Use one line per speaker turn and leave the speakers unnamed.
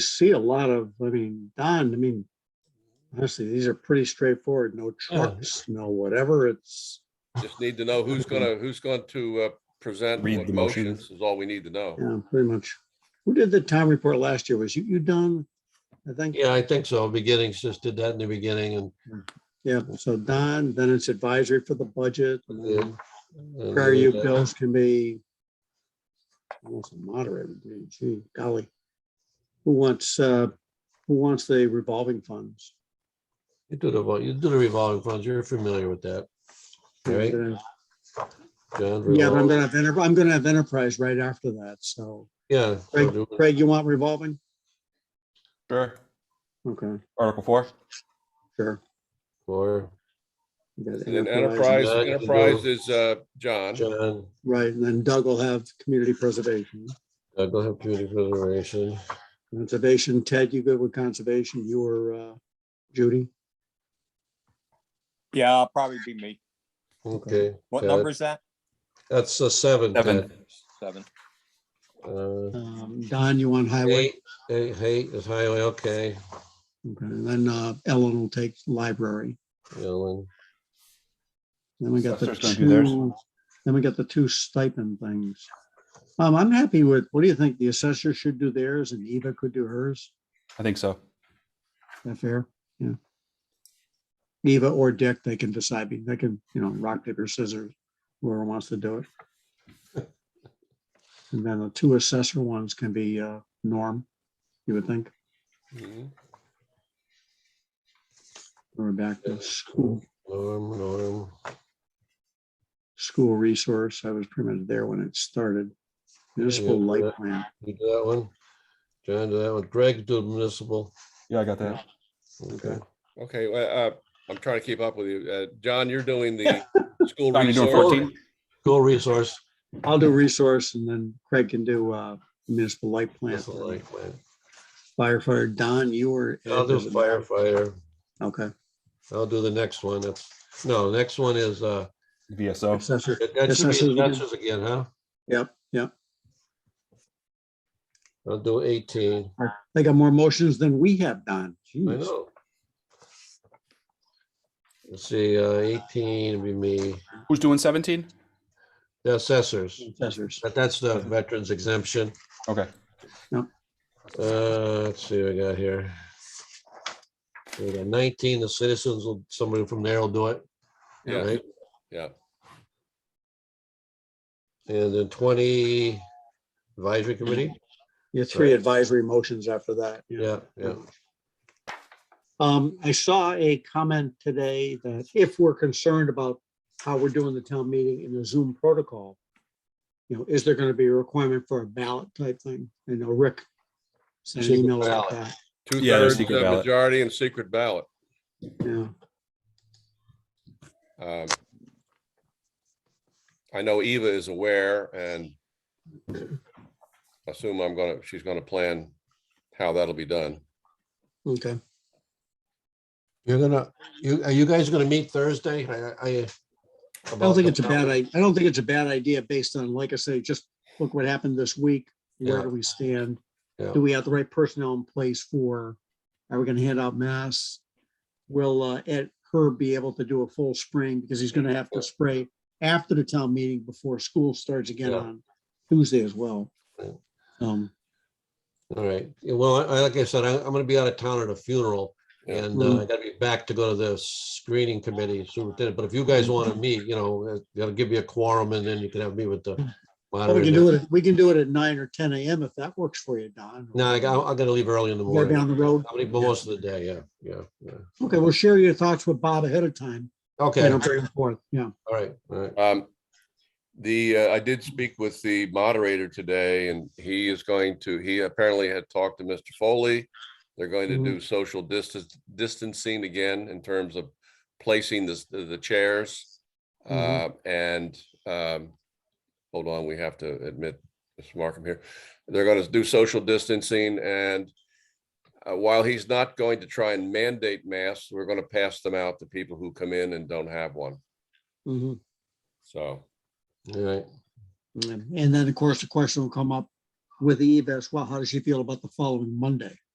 see a lot of, I mean, Don, I mean, honestly, these are pretty straightforward,
Oh,
no trucks, no whatever, it's,
Just need to know who's gonna, who's going to uh, present
Read
what
the
motions is all we need to know.
yeah, pretty much. Who did the town report last year? Was you, you Don? I think,
Yeah, I think so. Beginnings just did that in the beginning and-
yeah, so Don, then it's advisory for the budget. and then
and. uh,
Prior year bills can be almost a moderator, gee, gee, golly. Who wants, uh, who wants the revolving funds?
You do the, vol- you do the revolving funds. You're familiar with that. Right.
Yeah,
John,
but I'm
revolve-
gonna have, enter- I'm gonna have enterprise right after that, so.
Yeah. so
Craig,
do it.
Craig, you want revolving?
Sure.
Okay,
Article four.
sure.
Or
You got
And then enterprise,
Yeah, you can do-
enterprise is uh, John.
John,
Right, and then Doug will have community preservation.
uh, go ahead, community preservation.
Conservation, Ted, you good with conservation? You were, uh, Judy?
Yeah, I'll probably be me.
Okay.
What
got it.
number is that?
That's a seven.
Seven.
Ted.
Seven.
Uh,
Um, Don, you want highway?
Eight, eight, eight is highway, okay.
Okay, and then, uh, Ellen will take library.
Ellen,
Then we got the
Assessor's gonna do theirs.
two, then we got the two stipend things. Um, I'm happy with, what do you think? The assessor should do theirs and Eva could do hers?
I think so.
Is that fair? Yeah. Eva or Dick, they can decide, be- they can, you know, rock, paper, scissors, whoever wants to do it. And then the two assessor ones can be uh, Norm, you would think,
Mhm.
or back to school,
Norm, Norm.
school resource. I was pretty much there when it started. Municipal light plan.
You do that one. John, do that one. Greg, do municipal.
Yeah, I got that.
Okay.
Okay, well, uh, I'm trying to keep up with you. Uh, John, you're doing the school
John, you're doing
resource.
14?
Go resource.
I'll do resource and then Craig can do uh, municipal light plan.
That's what I like, man.
Firefighter, Don, you were.
I'll do firefighter.
Okay,
I'll do the next one. That's, no, next one is, uh,
VSO.
assessor.
that that should
Assessors
be
again.
assessors again, huh?
Yep, yep.
I'll do eighteen.
They got more motions than we have, Don.
I
Jeez.
know. Let's see, uh, eighteen would be me,
Who's doing 17?
the assessors.
Assessors.
But that's the veterans exemption.
Okay.
Uh, let's see, what I got here. We got nineteen, the citizens, will somebody from there will do it.
Yeah.
right?
Yeah.
And then twenty advisory committee?
Your three
Right.
advisory motions after that. yeah.
Yeah, yeah.
Um, I saw a comment today that if we're concerned about how we're doing the town meeting in the Zoom protocol, you know, is there going to be a requirement for a ballot type thing? I know Rick sent an
Secret
email about
ballot.
that.
Yeah, there's
Two-thirds uh,
secret ballot.
majority and secret ballot.
Yeah,
Um, I know Eva is aware and assume I'm gonna, she's gonna plan how that'll be done.
okay.
You're gonna, you, are you guys gonna meet Thursday? I, I.
I don't think it's a bad, I, I don't think it's a bad idea based on, like I say, just look what happened this week. Where
Yeah.
do we stand?
Yeah.
Do we have the right personnel in place for, are we gonna hand out masks? Will uh, Ed Herb be able to do a full spring because he's gonna have to spray after the town meeting before school starts again
Yeah.
on Tuesday as well.
Right.
Um,
All right. Yeah, Well, I, I- like I said, I, I'm gonna be out of town at a funeral
Yeah.
and
Mm-hmm.
uh, I gotta be back to go to the screening committee superintendent. But if you
Mm-hmm.
guys want to meet, you know, uh, you gotta give me a quorum and then you can have me with the.
but Mm. we can do
moderator.
it, we can do it at nine or ten AM if that works for you, Don.
No, I got, I gotta leave early in the
Go
morning.
down the road.
I'll leave most of the day, yeah, yeah, yeah.
Okay, we'll share your thoughts with Bob ahead of time. you
Okay,
know,
all
back and forth. Yeah.
right, all right.
Um, the, uh, I did speak with the moderator today and he is going to, he apparently had talked to Mr. Foley. They're going to
Mhm.
do social distance, distancing again in terms of placing the, the chairs. Uh,
Mhm.
and, um, hold on, we have to admit, Mr. Markham here. They're gonna do social distancing and uh, while he's not going to try and mandate masks, we're gonna pass them out to people who come in and don't have one.
Mhm.
So,
All right.
And and then, of course, the question will come up with Eve as well. How does she feel about the following Monday?